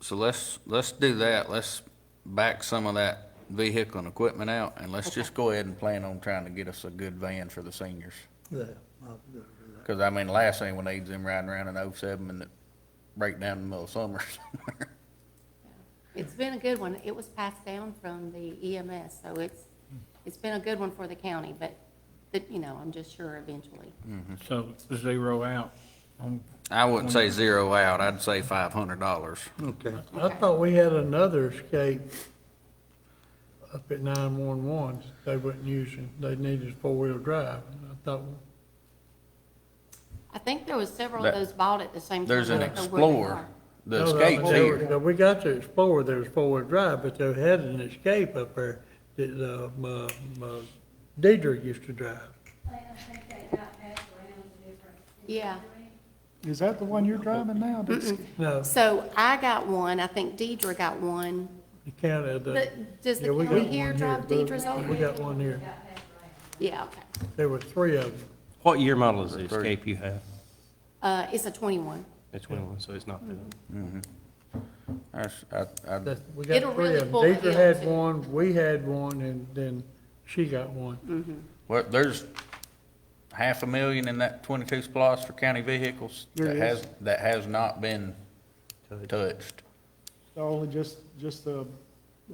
So let's, let's do that. Let's back some of that vehicle and equipment out, and let's just go ahead and plan on trying to get us a good van for the seniors. Yeah, I'll do that. Because, I mean, last thing we need is them riding around in '07 and it break down in the middle of summer. It's been a good one. It was passed down from the EMS, so it's, it's been a good one for the county, but, but, you know, I'm just sure eventually. Hmm. So zero out. Um, on- I wouldn't say zero out, I'd say five hundred dollars. Okay, I thought we had another escape up at nine-one-one they wasn't using. They needed four-wheel drive. I thought, I think there was several of That- those bought at the same time. There's an I don't know where they Explorer, are. the No, no, Escape's they were- here. no, We got to Explorer, there was four-wheel drive, but they had an escape up there that, uh, my, my Deidre used to drive. Yeah. Is that the one you're driving now? No, So I got one, I think Deidre got one. the county, the, But does the Yeah, we got county one here here, drive but- Deidre's we over? got one here. Yeah, okay. There were three of them. What year model is the Escape you have? Uh, it's a twenty-one. It's 21, so it's not the, That's- I- I- That- We It'll got three really of them. pull it Deidre in, had too. one, we had one, and then she got one. Well, there's half a million in that twenty-two splosh for county vehicles that has, that has not been touched. Only just, just a,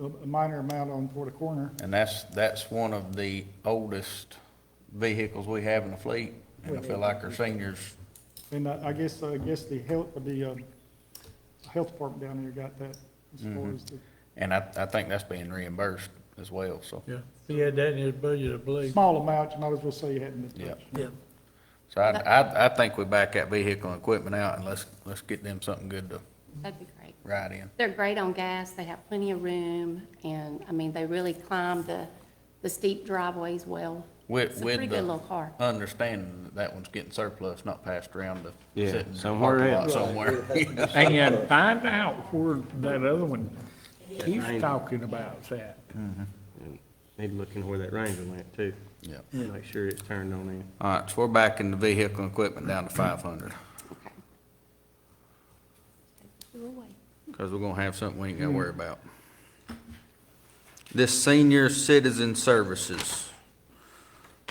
a minor amount on toward the corner. And that's, that's one of the oldest vehicles we have in the fleet. And I feel like our seniors, And I, I guess, I guess the health, the, um, health department down there got that as far as the and I, I think that's being reimbursed as well, so. Yeah, he had that in his budget, I believe. small amount, you might as well say you hadn't been Yeah. touched. yeah. So I, I, I think we back that vehicle and equipment out and let's, let's get them something good to That'd be great. ride in. They're great on gas, they have plenty of room, and, I mean, they really climb the, the steep driveways well. With, It's a with pretty the good little car. Understanding that that one's getting surplus, not passed around to Yeah, sit in the somewhere parking lot else. somewhere. And find out where that other one keeps talking about that. need to look in where that Ranger went too. Yeah. Make sure it's turned on in. All right, so we're backing the vehicle and equipment down to five hundred, Okay. Take you away. because we're gonna have something we ain't gotta worry about. This senior citizen services,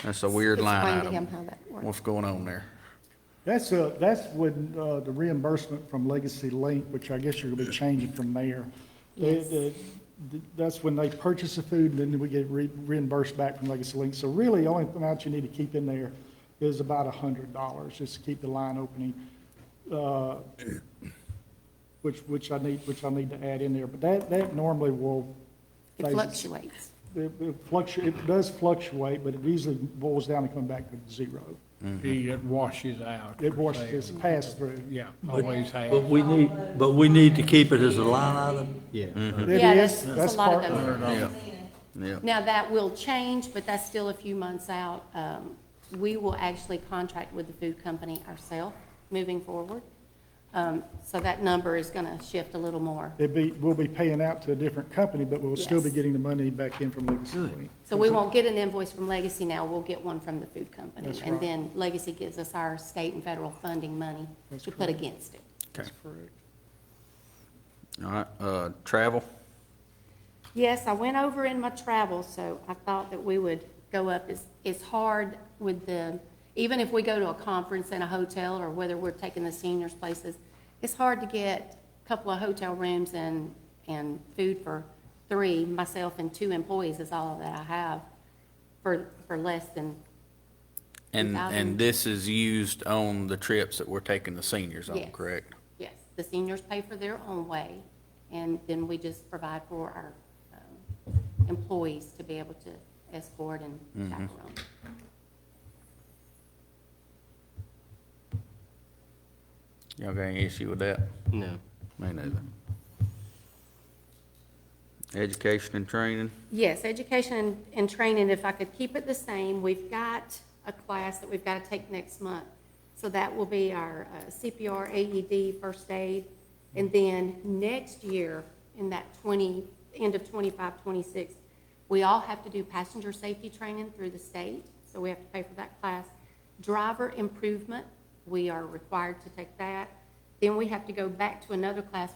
that's a weird line Explain to him item. how that works. What's going on there? That's, uh, that's when, uh, the reimbursement from Legacy Link, which I guess you're gonna be changing from there. They- Yes. the- the- That's when they purchase the food, and then we get re- reimbursed back from Legacy Link. So really, the only amount you need to keep in there is about a hundred dollars, just to keep the line opening. uh, Which, which I need, which I need to add in there, but that, that normally will. It fluctuates. It it fluctu, it does fluctuate, but it usually boils down and come back to zero. It washes out. It was, it's a pass-through. Yeah, always But has. we need, but we need to keep it as a line item. Yeah. It Yeah, is, that's, that's a lot part- of those. Yeah, yeah, Now, that will change, but that's still a few months out. Um, We will actually contract with the food company ourselves moving forward. Um, So that number is going to shift a little more. It'd be, we'll be paying out to a different company, but we'll still be Yes. getting the money back in from Legacy Link. So we won't get an invoice from Legacy now, we'll get one from the food company. That's And right. then Legacy gives us our state and federal funding money to put against it. all right, uh, travel, Yes, I went over in my travel, so I thought that we would go up. It's, it's hard with the, even if we go to a conference in a hotel or whether we're taking the seniors places, it's hard to get a couple of hotel rooms and, and food for three, myself and two employees is all that I have for, for less than, and, 2,000. and this is used on the trips that we're taking the seniors on, Yes. correct? yes, the seniors pay for their own way. And then we just provide for our um, employees to be able to escort and chaperone. Y'all got any issue with that? No. Me neither. Education and training, Yes, education and- and training, if I could keep it the same, we've got a class that we've got to take next month. So that will be our uh, CPR, AED, first aid. And then next year, in that 20, end of 25, 26, we all have to do passenger safety training through the state, so we have to pay for that class. Driver improvement, we are required to take that. Then we have to go back to another class